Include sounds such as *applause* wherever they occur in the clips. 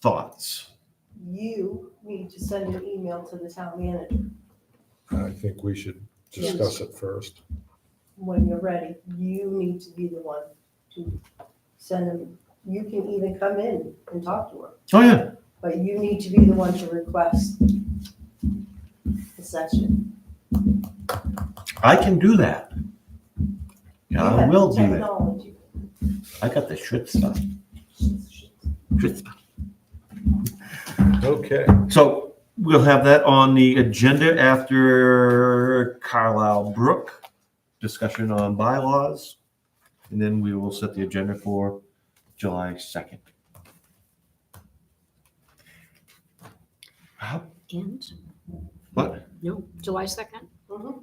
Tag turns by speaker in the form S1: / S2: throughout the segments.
S1: Thoughts?
S2: you need to send an email to the town manager
S3: I think we should discuss it first.
S2: when you're ready. You need to be the one to send them. You can even come in and talk to her,
S1: Oh, yeah.
S2: but you need to be the one to request the session.
S1: I can do that. Yeah,
S2: You
S1: I
S2: have
S1: will do that.
S2: Technology.
S1: I got the shit stuff. Schwitz.
S3: Okay,
S1: So we'll have that on the agenda after Carlisle Brook discussion on bylaws. And then we will set the agenda for July 2nd. How-
S4: And,
S1: What?
S4: no, July 2nd?
S2: Mhm.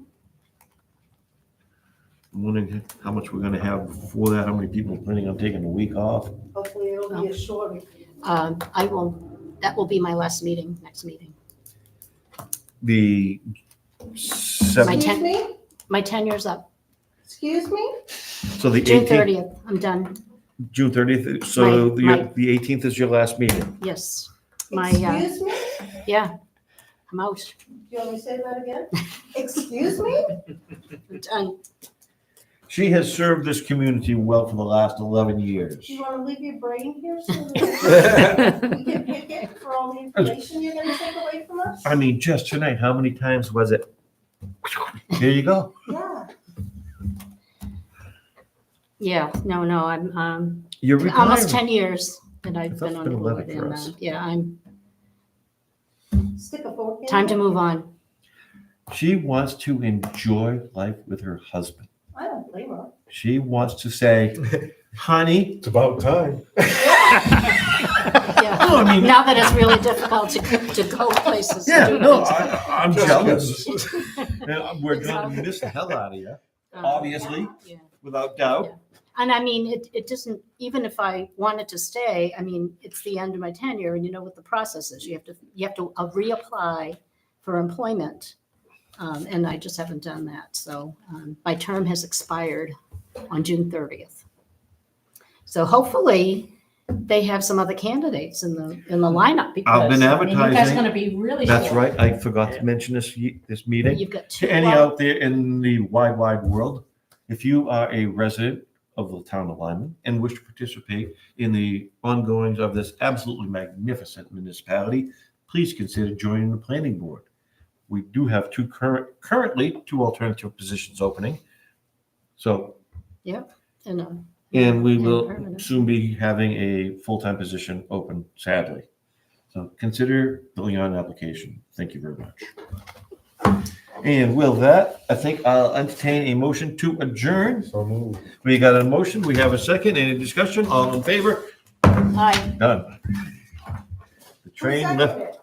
S1: I'm wondering how much we're going to have before that, how many people are planning on taking a week off.
S2: Hopefully it'll
S4: Oh.
S2: be a shorter.
S4: Um, I will, that will be my last meeting, next meeting.
S1: The
S4: My
S1: seventh,
S2: Excuse
S4: ten-
S2: me?
S4: My tenure's up,
S2: Excuse me?
S1: so the
S4: June
S1: 18th,
S4: 30th, I'm done,
S1: June 30th, so
S4: My-
S1: the
S4: my-
S1: the 18th is your last meeting.
S4: yes. My, uh,
S2: Excuse me?
S4: yeah, I'm out,
S2: Do you want me to say that
S4: *laughs*
S2: again? Excuse me?
S1: *laughs*
S4: I'm done.
S1: She has served this community well for the last 11 years.
S2: Do you want to leave your brain here so
S1: *laughs*
S2: that we can pick it for all the information you're going to take away from us?
S1: I mean, just tonight, how many times was it? Here you go.
S2: Yeah.
S4: Yeah, no, no, I'm, um,
S1: You're
S4: almost
S1: retiring.
S4: 10 years that
S1: I
S4: I've
S1: thought
S4: been
S1: it's
S4: on
S1: been
S4: board.
S1: 11 for
S4: and,
S1: us.
S4: uh, Yeah, I'm,
S2: Stick a fork in.
S4: time
S2: it.
S4: to move on.
S1: She wants to enjoy life with her husband.
S2: I don't blame her.
S1: She wants to say, honey,
S3: it's about time.
S1: *laughs* no,
S4: Yeah.
S1: Oh, I mean,
S4: Now that it's really difficult to, to go places. to
S1: yeah,
S4: do
S1: no,
S4: things.
S1: I, I'm
S3: Just
S1: jealous.
S3: kidding.
S1: Yeah, We're going to miss the hell out of you,
S4: Um,
S1: obviously,
S4: yeah.
S1: without doubt.
S4: And I mean, it, it doesn't, even if I wanted to stay, I mean, it's the end of my tenure and you know what the process is. You have to, you have to uh, reapply for employment. Um, and I just haven't done that. So, um, my term has expired on June thirtieth. So hopefully they have some other candidates in the, in the lineup because.
S1: I've been
S4: I mean, you guys-
S1: advertising.
S5: That's gonna be really.
S1: That's
S5: short.
S1: right. I forgot to mention this, ye- this meeting.
S4: You've got two.
S1: To any
S4: out-
S1: out there in the wide, wide world, if you are a resident of the town of Lyman and wish to participate in the ongoings of this absolutely magnificent municipality, please consider joining the planning board. We do have two current, currently two alternative positions opening. So,
S4: you know,
S1: and we will
S4: permanent.
S1: soon be having a full-time position open, sadly. So consider filling out an application. Thank you very much. And with that, I think I'll entertain a motion to adjourn.
S3: So moved.
S1: We got a motion, we have a second, any discussion, all in favor?
S4: Hi,
S1: Done. The
S2: Who
S1: train
S2: seconded
S1: left,
S2: it?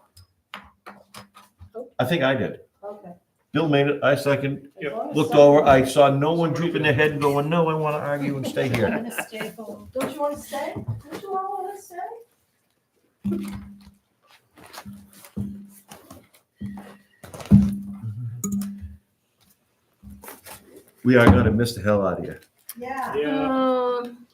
S1: I think I did.
S2: Okay.
S1: Bill made it, I second,
S2: As long as
S1: looked
S2: someone-
S1: over, I saw no one drooping their head and going, no, I want to argue and stay
S5: I'm
S1: here.
S5: gonna stay home.
S2: Don't you want to stay? Don't you all want to stay?
S1: We are going to miss the hell out of you.
S2: Yeah.
S6: Yeah.
S4: Um,